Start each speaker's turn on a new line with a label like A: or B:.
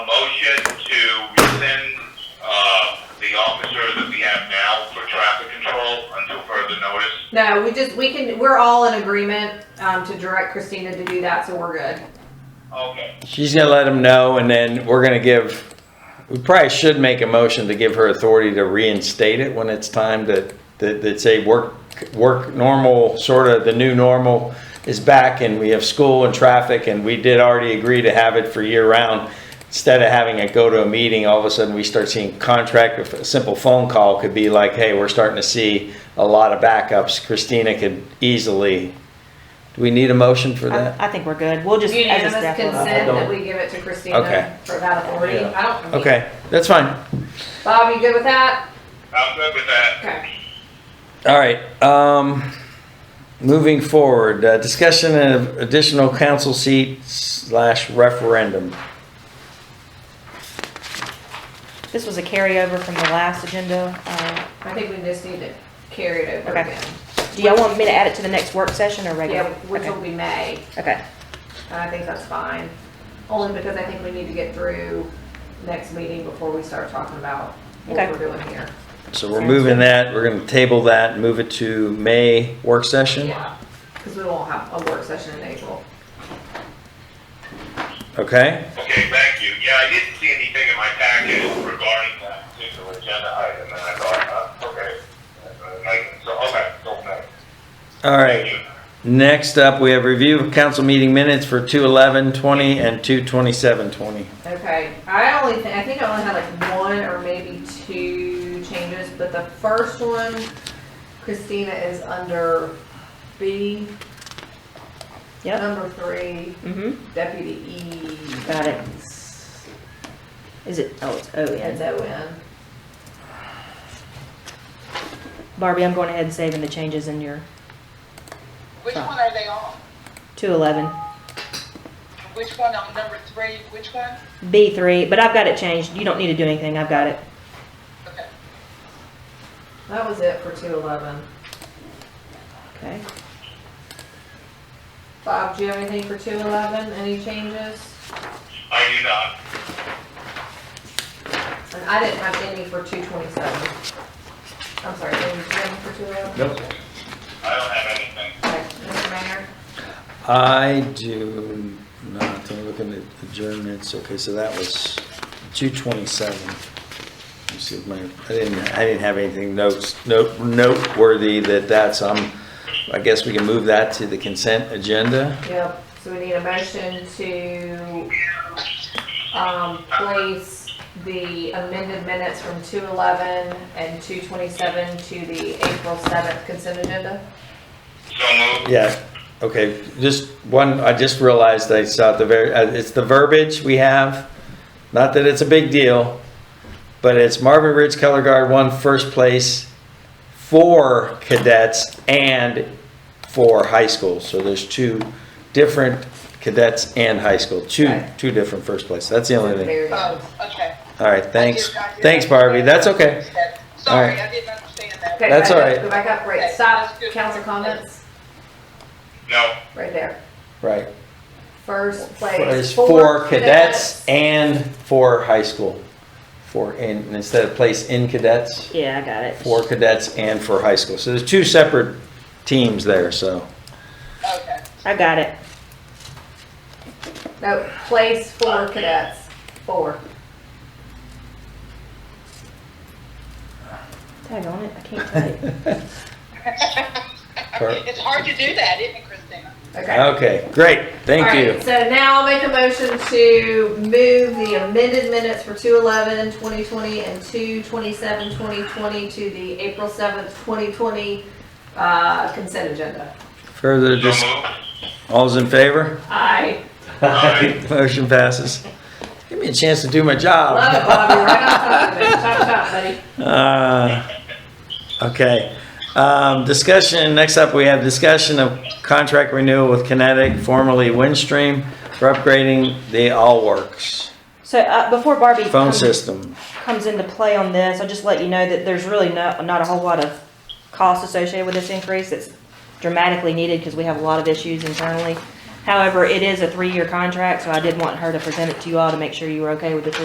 A: motion to rescind, uh, the officer that we have now for traffic control until further notice.
B: No, we just, we can, we're all in agreement, um, to direct Christina to do that, so we're good.
A: Okay.
C: She's gonna let him know, and then we're gonna give, we probably should make a motion to give her authority to reinstate it when it's time to, that, that say work, work normal, sort of the new normal is back, and we have school and traffic, and we did already agree to have it for year round. Instead of having it go to a meeting, all of a sudden, we start seeing contract, if a simple phone call could be like, hey, we're starting to see a lot of backups, Christina could easily, do we need a motion for that?
D: I, I think we're good. We'll just, as a
B: Unanimous
D: staff, we'll-
B: consent
C: don't-
B: that we give it to
C: Okay.
B: Christina for that authority.
C: Yeah.
B: I don't. I mean,
C: Okay, that's fine.
B: Bob, you good with that?
A: I'm good with that.
B: Okay.
C: All right, um, moving forward, uh, discussion of additional council seat slash referendum.
D: this was a carryover from the last agenda. Uh,
B: I think we just need to carry it over
D: Okay.
B: again.
D: Do y'all want me to add it to the next work session or
B: Yeah,
D: regular?
B: which will
D: Okay.
B: be May,
D: Okay,
B: and I think that's fine. Only because I think we need to get through next meeting before we start talking about what
D: Okay.
B: we're doing here.
C: So we're moving that, we're gonna table that, move it to May work session?
B: Yeah, because we won't have a work session in April.
C: Okay,
A: Okay, thank you. Yeah, I didn't see anything in my package regarding that particular agenda item, and I thought, uh, okay. Uh, like, So, okay, so, okay.
C: all
A: Thank
C: right.
A: you.
C: Next up, we have review of council meeting minutes for two eleven twenty and two twenty-seven twenty.
B: Okay, I only, thi- I think I only had like one or maybe two changes, but the first one, Christina is under B,
D: yep.
B: number three,
D: Mm-hmm,
B: deputy E.
D: got it. Is it, oh, it's O
B: It's
D: N.
B: O N.
D: Barbie, I'm going ahead and saving the changes in your
E: Which
D: Huh.
E: one are they on?
D: two eleven.
E: Which one on number three, which one?
D: B three, but I've got it changed. You don't need to do anything. I've got it.
E: Okay.
B: That was it for two eleven.
D: Okay.
B: Bob, do you have anything for two eleven? Any changes?
A: I do not.
B: And I didn't have any for two twenty-seven. I'm sorry, did you have any for two eleven?
C: Nope.
A: I don't have anything.
B: Okay, Mr. Mayor?
C: I do not, I'm looking at adjournments, okay, so that was two twenty-seven. Let me see if my, I didn't, I didn't have anything notes, note, noteworthy that that's, um, I guess we can move that to the consent agenda.
B: Yep, so we need a motion to, um, place the amended minutes from two eleven and two twenty-seven to the April seventh consent agenda.
A: So moved.
C: Yeah, okay, just one, I just realized I saw the very, uh, it's the verbiage we have. Not that it's a big deal, but it's Marvin Ridge Color Guard won first place for cadets and for high school. So there's two different cadets and high school, two,
B: Right.
C: two different first place. That's the only thing.
B: Very good.
E: Oh, okay.
C: All right, thanks.
E: I did not hear
C: Thanks,
E: that.
C: Barbie, that's okay.
E: Sorry,
C: All
E: I didn't understand that.
B: Okay, back
C: That's
B: up,
C: all right.
B: Go back up, right,
E: Okay,
B: stop,
E: that's good.
B: council comments,
A: No,
B: right there.
C: Right.
B: First
C: It's
B: place.
C: for cadets and for high school. For, in instead of place in cadets.
D: Yeah, I got it.
C: for cadets and for high school. So there's two separate teams there, so.
E: Okay.
D: I got it.
B: No, place for cadets, four.
D: Tag on it. I can't type.
C: Correct.
E: It's hard to do that, isn't it, Christina?
B: Okay.
C: Okay, great, thank
B: All
C: you.
B: right, So now I'll make a motion to move the amended minutes for 211, 2020, and 227, 2020 to the April 7th, 2020 uh, consent agenda.
C: Further,
A: so
C: just,
A: moved.
C: all's in favor?
B: I
A: Aye.
C: Motion passes. Give me a chance to do my
B: love it,
C: job.
B: Bobby, right on top of it. Chop, chop, buddy.
C: Uh, Okay, um, discussion, next up, we have discussion of contract renewal with Kinetic, formerly Windstream, for upgrading the Allworks
D: So uh, before Barbie
C: phone
D: comes-
C: system.
D: comes into play on this, I'll just let you know that there's really not, not a whole lot of cost associated with this increase that's dramatically needed because we have a lot of issues internally. However, it is a three-year contract, so I did want her to present it to you all to make sure you were okay with the three